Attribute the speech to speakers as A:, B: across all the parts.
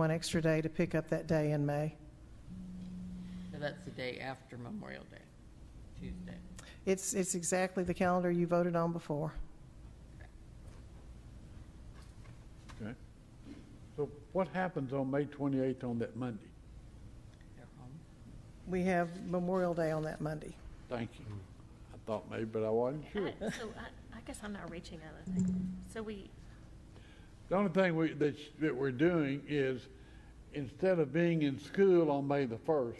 A: one extra day to pick up that day in May.
B: So that's the day after Memorial Day, Tuesday.
A: It's, it's exactly the calendar you voted on before.
C: Okay. So what happens on May 28th on that Monday?
B: They're home.
A: We have Memorial Day on that Monday.
C: Thank you. I thought maybe, but I wasn't sure.
D: I- So I, I guess I'm not reaching out, I think. So we,
C: The only thing we, that, that we're doing is, instead of being in school on May the 1st,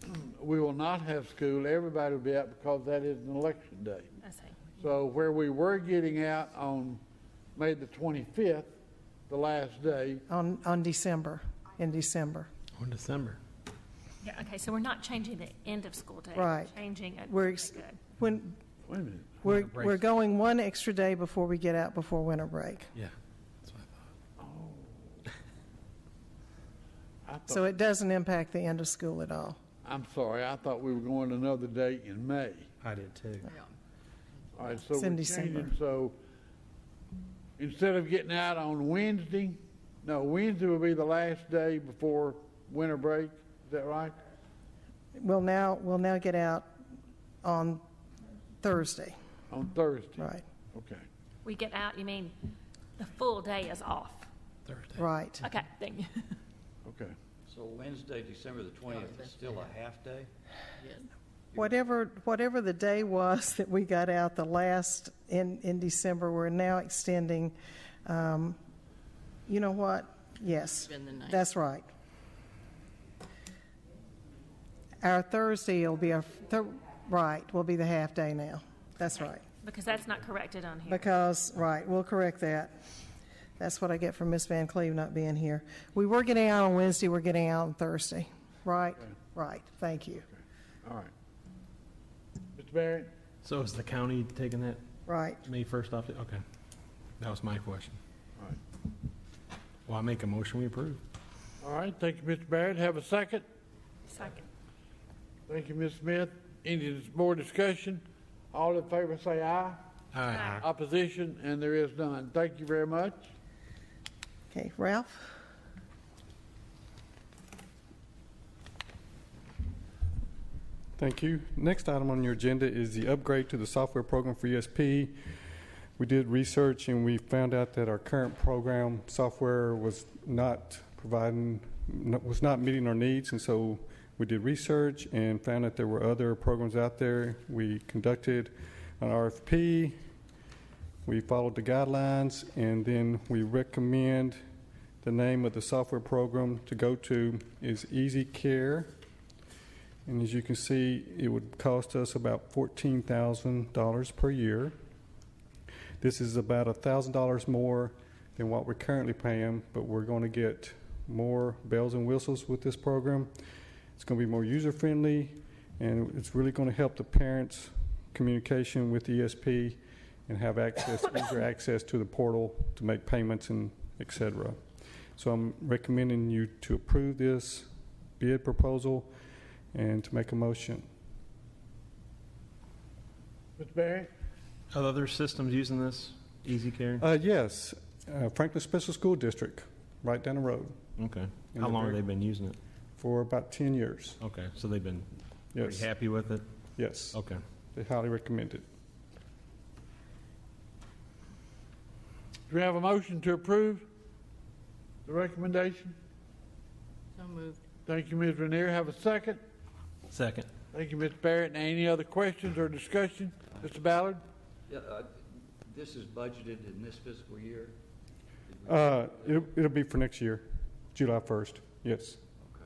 C: we will not have school, everybody will be out because that is an election day.
D: I say,
C: So where we were getting out on May the 25th, the last day,
A: On, on December, in December.
E: Or December.
D: yeah, okay, so we're not changing the end of school day.
A: Right.
D: Changing it.
A: We're,
D: okay,
A: ex-
D: good.
A: when,
C: wait a minute,
A: we're,
E: Winter break.
A: we're going one extra day before we get out before winter break.
E: Yeah. That's what I thought.
C: I
A: So
C: thought,
A: it doesn't impact the end of school at all.
C: I'm sorry, I thought we were going another day in May.
E: I did too.
B: Yeah.
C: All right, so
A: It's in
C: we're changing,
A: December.
C: so instead of getting out on Wednesday, no, Wednesday will be the last day before winter break, is that right?
A: We'll now, we'll now get out on Thursday,
C: On Thursday?
A: right,
C: Okay.
D: We get out, you mean, the full day is off.
E: Thursday.
A: right.
D: Okay, thank you.
C: Okay.
F: So Wednesday, December the twentieth is still a half day?
B: Yes.
A: Whatever, whatever the day was that we got out the last in, in December, we're now extending, um, you know what? Yes,
B: Been the ninth.
A: that's right. Our Thursday will be our, Thur- right, will be the half day now. That's right.
D: Because that's not corrected on here.
A: Because, right, we'll correct that. That's what I get from Miss Van Cleve not being here. We were getting out on Wednesday, we're getting out on Thursday, right? Right, thank you,
C: All right. Mr. Barrett?
E: So is the county taking that
A: right.
E: May 1st off? the- Okay. That was my question.
C: All right.
E: Well, I make a motion we approve.
C: All right, thank you, Mr. Barrett. Have a second.
D: Second.
C: Thank you, Ms. Smith. Any dis- more discussion? All in favor say aye.
E: Aye.
C: Opposition, and there is none. Thank you very much.
A: Okay, Ralph?
G: Thank you. Next item on your agenda is the upgrade to the software program for ESP. We did research and we found out that our current program software was not providing, no- was not meeting our needs, and so we did research and found that there were other programs out there. We conducted an RFP, we followed the guidelines, and then we recommend the name of the software program to go to is Easy Care. And as you can see, it would cost us about fourteen thousand dollars per year. This is about a thousand dollars more than what we're currently paying, but we're going to get more bells and whistles with this program. It's going to be more user friendly, and it's really going to help the parents' communication with ESP and have access, easier access to the portal to make payments and et cetera. So I'm recommending you to approve this bid proposal and to make a motion.
C: Mr. Barrett?
E: Are other systems using this? Easy Care?
G: Uh, yes, uh, Franklin Special School District, right down the road,
E: Okay.
G: And
E: How
G: the
E: long have
G: very-
E: they been using it?
G: for about 10 years.
E: Okay, so they've been pretty
G: Yes,
E: happy with it?
G: yes,
E: Okay.
G: they highly recommend it.
C: Do we have a motion to approve the recommendation?
B: So moved.
C: Thank you, Ms. Renier. Have a second.
E: Second.
C: Thank you, Ms. Barrett. And any other questions or discussion? Mr. Ballard?
F: Yeah, uh, this is budgeted in this fiscal year?
G: Uh, it'll, it'll be for next year, July 1st. Yes,
F: Okay.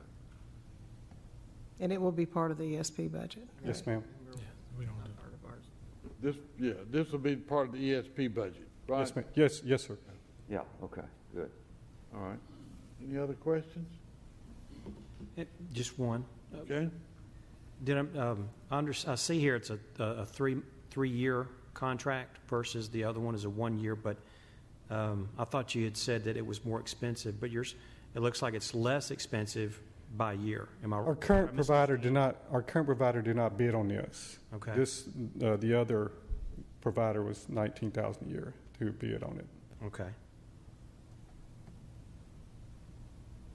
A: And it will be part of the ESP budget.
G: yes, ma'am.
E: We don't
B: Not part of ours.
C: This, yeah, this will be part of the ESP budget, right?
G: Yes, ma'am. Yes, yes, sir.
F: Yeah, okay, good.
C: All right. Any other questions?
H: Eh, Just one.
C: Okay.
H: Did I, um, I under, I see here it's a, a a three, three-year contract versus the other one is a one-year, but, um, I thought you had said that it was more expensive, but yours, it looks like it's less expensive by year. Am I?
G: Our
H: am I
G: current
H: missing
G: provider did not, our current provider did not bid on this.
H: Okay.
G: This, uh, the other provider was 19,000 a year to bid on it.
H: something? Okay.